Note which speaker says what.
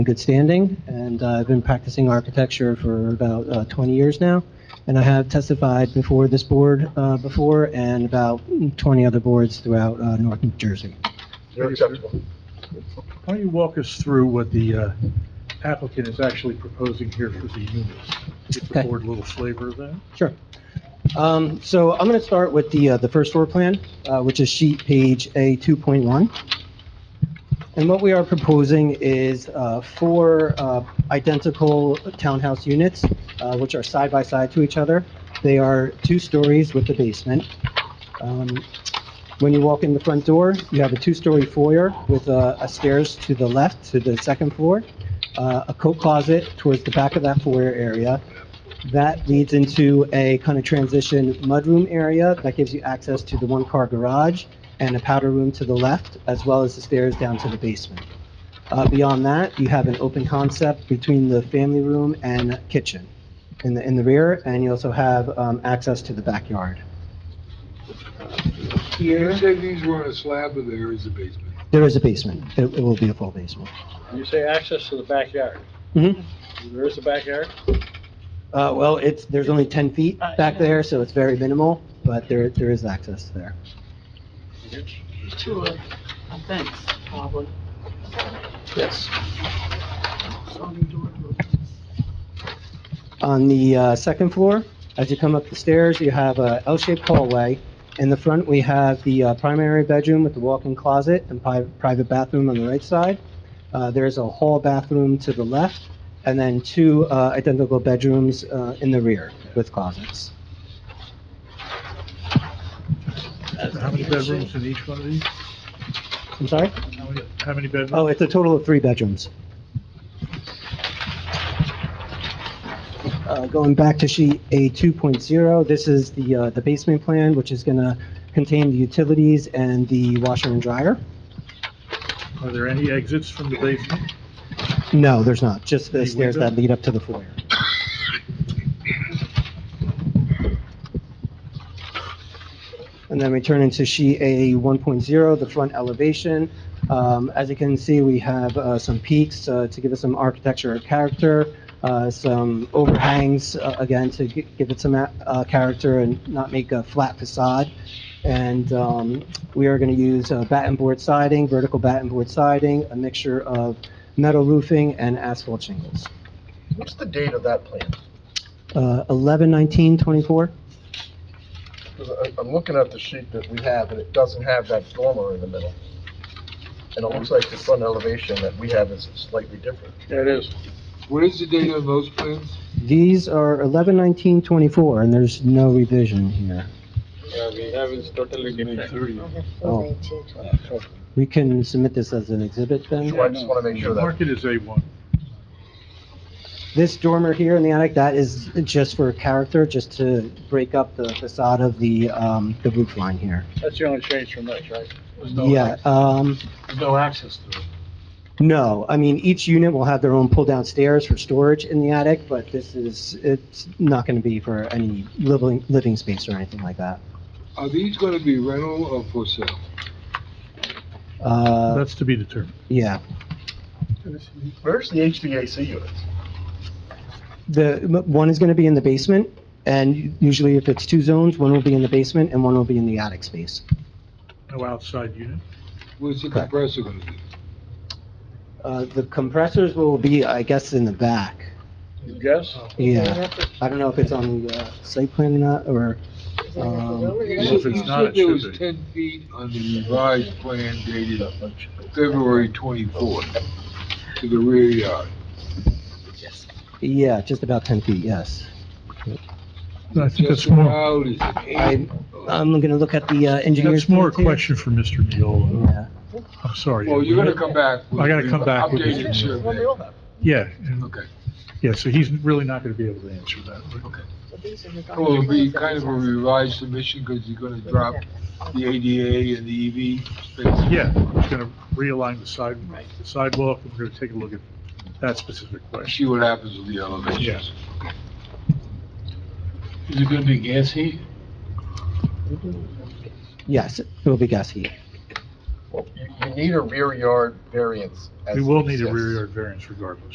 Speaker 1: in good standing, and uh, I've been practicing architecture for about uh, 20 years now, and I have testified before this board uh, before and about 20 other boards throughout uh, North New Jersey.
Speaker 2: You're acceptable.
Speaker 3: Why don't you walk us through what the uh, applicant is actually proposing here for the units? Give the
Speaker 1: Okay.
Speaker 3: board a little flavor of that.
Speaker 1: Sure. Um, So I'm going to start with the, uh, the first floor plan, uh, which is sheet page A 2.1. And what we are proposing is uh, four uh, identical townhouse units, uh, which are side by side to each other. They are two stories with a basement. Um, When you walk in the front door, you have a two-story foyer with uh, a stairs to the left to the second floor, uh, a coat closet towards the back of that foyer area, that leads into a kind of transition mudroom area that gives you access to the one-car garage and a powder room to the left, as well as the stairs down to the basement. Uh, Beyond that, you have an open concept between the family room and kitchen in the, in the rear, and you also have um, access to the backyard.
Speaker 2: You said these were on a slab, but there is a basement.
Speaker 1: There is a basement. It it will be a full basement.
Speaker 4: You say access to the backyard.
Speaker 1: Mhm.
Speaker 4: There is a backyard?
Speaker 1: Uh, Well, it's, there's only 10 feet back there, so it's very minimal, but there, there is access there.
Speaker 5: to a, a fence, probably.
Speaker 4: Yes.
Speaker 5: On the door.
Speaker 1: On the uh, second floor, as you come up the stairs, you have a L-shaped hallway. In the front, we have the uh, primary bedroom with the walk-in closet and pri- private bathroom on the right side. Uh, There's a hall bathroom to the left, and then two uh, identical bedrooms uh, in the rear with closets.
Speaker 3: How many bedrooms in each one of these?
Speaker 1: I'm sorry?
Speaker 3: How many- How many bedrooms?
Speaker 1: Oh, it's a total of three bedrooms. Uh, Going back to sheet A 2.0, this is the, uh, the basement plan, which is going to contain the utilities and the washer and dryer.
Speaker 3: Are there any exits from the basement?
Speaker 1: No, there's not, just the
Speaker 3: Any
Speaker 1: stairs that lead up to the foyer. And then we turn into sheet A 1.0, the front elevation. Um, As you can see, we have uh, some peaks uh, to give it some architecture or character, uh, some overhangs, uh, again, to gi- give it some uh, character and not make a flat facade. And um, we are going to use uh, batten board siding, vertical batten board siding, a mixture of metal roofing and asphalt shingles.
Speaker 2: What's the date of that plan?
Speaker 1: Uh, 11, 19, 24?
Speaker 2: 'Cause I- I'm looking at the sheet that we have, and it doesn't have that dormer in the middle. And it looks like the front elevation that we have is slightly different.
Speaker 4: That is.
Speaker 6: What is the date of those plans?
Speaker 1: These are 11, 19, 24, and there's no revision here.
Speaker 4: Yeah, we have is totally different.
Speaker 1: Oh, We can submit this as an exhibit then?
Speaker 2: So I just want to make sure that,
Speaker 3: Market is A1.
Speaker 1: This dormer here in the attic, that is just for character, just to break up the facade of the, um, the roof line here.
Speaker 4: That's the only change from this, right?
Speaker 1: Yeah, um,
Speaker 4: No access to it.
Speaker 1: no, I mean, each unit will have their own pull-down stairs for storage in the attic, but this is, it's not going to be for any living, living space or anything like that.
Speaker 6: Are these gonna be rental or for sale?
Speaker 1: Uh,
Speaker 3: That's to be determined.
Speaker 1: Yeah,
Speaker 2: where's the HVAC units?
Speaker 1: the, m- one is going to be in the basement, and usually if it's two zones, one will be in the basement and one will be in the attic space.
Speaker 3: No outside unit.
Speaker 6: Where's the
Speaker 1: Correct.
Speaker 6: compressor gonna be?
Speaker 1: Uh, The compressors will be, I guess, in the back.
Speaker 4: You guess?
Speaker 1: Yeah, I don't know if it's on the uh, site plan or not, or, um,
Speaker 6: You
Speaker 3: Well,
Speaker 6: said-
Speaker 3: if it's
Speaker 6: you
Speaker 3: not,
Speaker 6: said
Speaker 3: it
Speaker 6: There
Speaker 3: should
Speaker 6: was
Speaker 3: be.
Speaker 6: ten feet on the revised plan dated February twenty-fourth to the rear yard.
Speaker 1: yeah, just about 10 feet, yes.
Speaker 3: I think that's
Speaker 6: Just
Speaker 2: uh,
Speaker 3: more,
Speaker 6: allowed is an eight.
Speaker 1: I'm going to look at the uh, engineer's.
Speaker 3: that's more a
Speaker 1: plan, too.
Speaker 3: question for Mr. Neola.
Speaker 1: Yeah.
Speaker 3: I'm sorry.
Speaker 6: Well, you're gonna come back. with
Speaker 3: I gotta come back with
Speaker 6: updated
Speaker 3: it.
Speaker 6: survey.
Speaker 3: Yeah, and-
Speaker 6: Okay.
Speaker 3: yeah, so he's really not going to be able to answer that.
Speaker 6: Well, it'll be kind of a revised submission, because you're gonna drop the ADA and the EV space.
Speaker 3: Yeah, he's going to realign the side, the sidewalk, and we're going to take a look at that specific question.
Speaker 6: See what happens with the elevations. Is it gonna be gas heat?
Speaker 1: Yes, it will be gas heat.
Speaker 2: Well, you, you need a rear yard variance. as
Speaker 3: We will
Speaker 2: it
Speaker 3: need a
Speaker 2: exists.
Speaker 3: rear yard variance regardless.